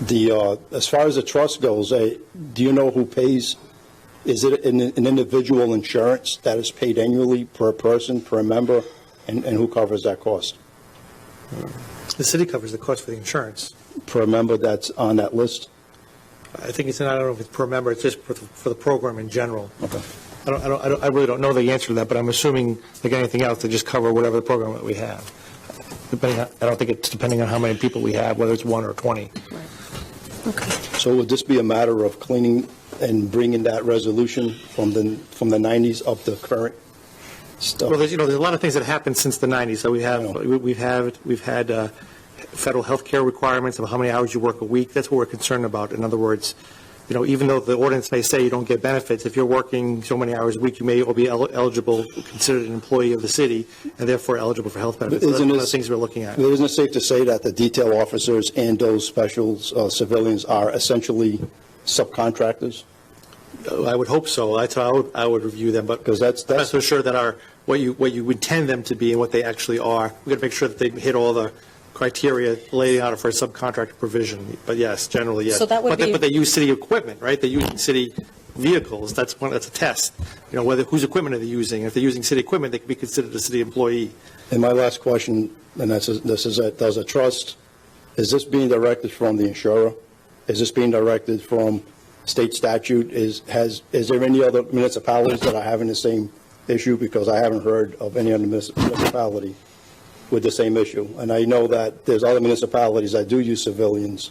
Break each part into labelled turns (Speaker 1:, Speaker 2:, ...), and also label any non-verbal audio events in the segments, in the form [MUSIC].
Speaker 1: The, uh, as far as the trust goes, eh, do you know who pays? Is it an an individual insurance that is paid annually per person, per member, and and who covers that cost?
Speaker 2: The city covers the cost for the insurance.
Speaker 1: Per member that's on that list?
Speaker 2: I think it's, I don't know if it's per member, it's just for the- for the program in general.
Speaker 1: Okay.
Speaker 2: I don't, I don't- I don't, I really don't know the answer to that, but I'm assuming, like anything else, they just cover whatever the program that we have. Depending, on- I don't think it's depending on how many people we have, whether it's one or 20.
Speaker 3: Okay.
Speaker 1: So would this be a matter of cleaning and bringing that resolution from the, from the 90s up to current stuff?
Speaker 2: Well, there's, you know, there's a lot of things that happened since the 90s, so we have,
Speaker 1: I
Speaker 2: we- we've had, we've had uh, federal health care requirements of how many hours you work a week, that's what we're concerned about. In other words, you know, even though the ordinance may say you don't get benefits, if you're working so many hours a week, you may all be el- eligible, considered an employee of the city, and therefore eligible for health benefits. So That's
Speaker 1: Isn't
Speaker 2: one of the
Speaker 1: this-
Speaker 2: things we're looking at.
Speaker 1: Isn't it safe to say that the detail officers and those specials uh, civilians are essentially subcontractors?
Speaker 2: Uh, I would hope so, that's how I would, I would review them, but.
Speaker 1: 'Cause that's-
Speaker 2: I'm not
Speaker 1: that's-
Speaker 2: so sure that our, what you, what you intend them to be and what they actually are. We've got to make sure that they hit all the criteria laid out for a subcontract provision, but yes, generally, yes.
Speaker 3: So that would
Speaker 2: But they-
Speaker 3: be-
Speaker 2: But they use city equipment, right? They use city vehicles, that's one, that's a test. You know, whether, whose equipment are they using? If they're using city equipment, they could be considered a city employee.
Speaker 1: And my last question, and that's, this is, it, does a trust, is this being directed from the insurer? Is this being directed from state statute? Is, has, is there any other municipalities that are having the same issue? Because I haven't heard of any other munis- municipality with the same issue. And I know that there's other municipalities that do use civilians.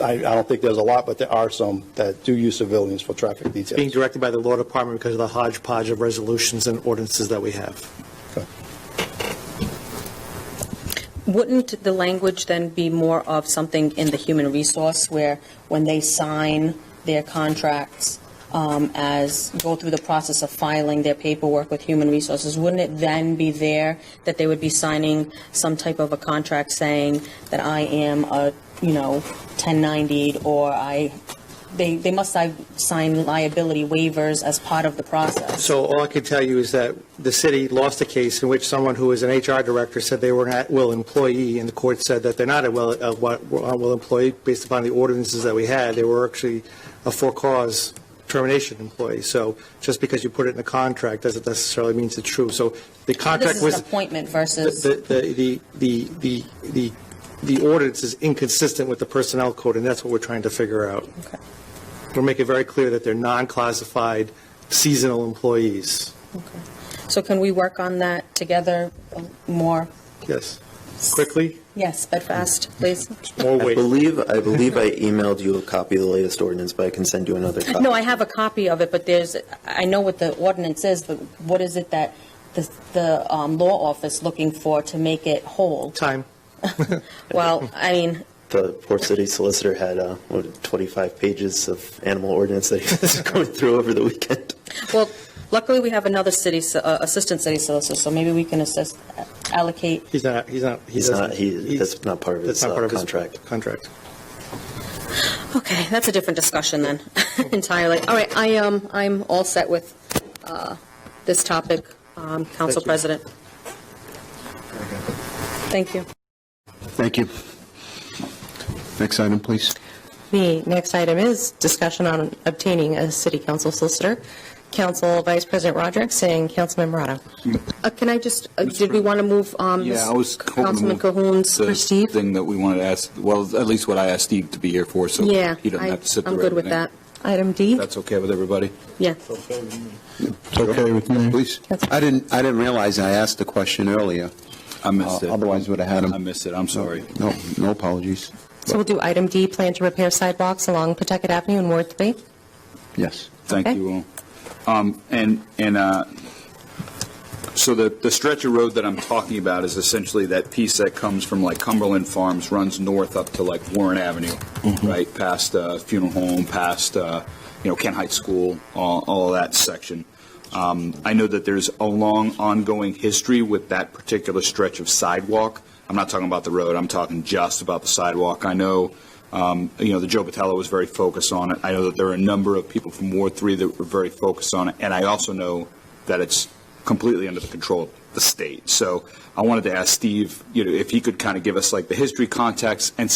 Speaker 1: I, I don't think there's a lot, but there are some that do use civilians for traffic details.
Speaker 2: Being directed by the law department because of the hodgepodge of resolutions and ordinances that we have.
Speaker 3: Wouldn't the language then be more of something in the human resource where when they sign their contracts um, as, go through the process of filing their paperwork with human resources, wouldn't it then be there that they would be signing some type of a contract saying that I am a, you know, 1090 or I, they, they must si- sign liability waivers as part of the process?
Speaker 2: So all I can tell you is that the city lost a case in which someone who was an HR director said they were an at-will employee, and the court said that they're not a well, a wa- at-will employee based upon the ordinances that we had. They were actually a for-cause termination employee. So just because you put it in a contract doesn't necessarily means it's true. So the
Speaker 3: This
Speaker 2: contract
Speaker 3: is
Speaker 2: was.
Speaker 3: an appointment
Speaker 2: The,
Speaker 3: versus.
Speaker 2: the, the, the, the, the ordinance is inconsistent with the personnel code, and that's what we're trying to figure out.
Speaker 3: Okay.
Speaker 2: We're making very clear that they're non-classified seasonal employees.
Speaker 3: So can we work on that together more?
Speaker 2: Yes. Quickly?
Speaker 3: Yes, but fast,
Speaker 2: Mm.
Speaker 3: please.
Speaker 2: More
Speaker 4: I
Speaker 2: weight.
Speaker 4: believe, I believe I emailed you a copy of the latest ordinance, but I can send you another copy.
Speaker 3: No, I have a copy of it, but there's, I know what the ordinance is, but what is it that the, the um, law office looking for to make it whole?
Speaker 2: Time.
Speaker 3: Well, I mean,
Speaker 4: The Port City Solicitor had, uh, what, 25 pages of animal ordinance that he [LAUGHS] was going through over the weekend.
Speaker 3: well, luckily we have another city, so- uh, assistant city solicitor, so maybe we can assist, uh, allocate.
Speaker 2: He's not, he's not. he
Speaker 4: He's
Speaker 2: doesn't-
Speaker 4: not- he-
Speaker 2: he's-
Speaker 4: that's not part of
Speaker 2: that's
Speaker 4: his,
Speaker 2: not
Speaker 4: uh,
Speaker 2: part of his
Speaker 4: contract.
Speaker 2: Contract.
Speaker 3: Okay, that's a different discussion then, [LAUGHS] entirely. All right, I, um, I'm all set with uh, this topic, um, Council
Speaker 2: Thank you.
Speaker 3: President. Thank you.
Speaker 5: Thank you. Next item, please.
Speaker 6: The next item is discussion on obtaining a city council solicitor. Council Vice President Rodrick and Councilman Morato.
Speaker 3: Uh, Can I just, uh, did we want to move, um,
Speaker 7: Yeah, I was hoping to
Speaker 3: Councilman
Speaker 7: move
Speaker 3: Cahoon's
Speaker 7: the
Speaker 3: for Steve?
Speaker 7: Thing that we wanted to ask, well, at least what I asked Steve to be here for, so
Speaker 3: Yeah,
Speaker 7: he doesn't
Speaker 3: I-
Speaker 7: have to sit through
Speaker 3: I'm good with
Speaker 7: everything.
Speaker 3: that.
Speaker 6: Item D.
Speaker 7: That's okay with everybody?
Speaker 3: Yeah.
Speaker 5: It's okay with me.
Speaker 7: Please.
Speaker 5: I didn't, I didn't realize I asked the question earlier.
Speaker 7: I missed
Speaker 5: Uh,
Speaker 7: it.
Speaker 5: Otherwise, would have had him.
Speaker 7: I missed it, I'm sorry.
Speaker 5: No, no apologies.
Speaker 6: So we'll do item D, plan to repair sidewalks along Pawtucket Avenue and Ward 3.
Speaker 5: Yes.
Speaker 7: Thank
Speaker 6: Okay.
Speaker 7: you all. Um, And, and uh, so the, the stretch of road that I'm talking about is essentially that piece that comes from like Cumberland Farms, runs north up to like Warren Avenue, right, past uh, Funeral Home, past, uh, you know, Kent Heights School, all, all of that section. Um, I know that there's a long ongoing history with that particular stretch of sidewalk. I'm not talking about the road, I'm talking just about the sidewalk. I know, um, you know, the Joe Battello was very focused on it. I know that there are a number of people from Ward 3 that were very focused on it, and I also know that it's completely under the control of the state. So I wanted to ask Steve, you know, if he could kind of give us like the history context and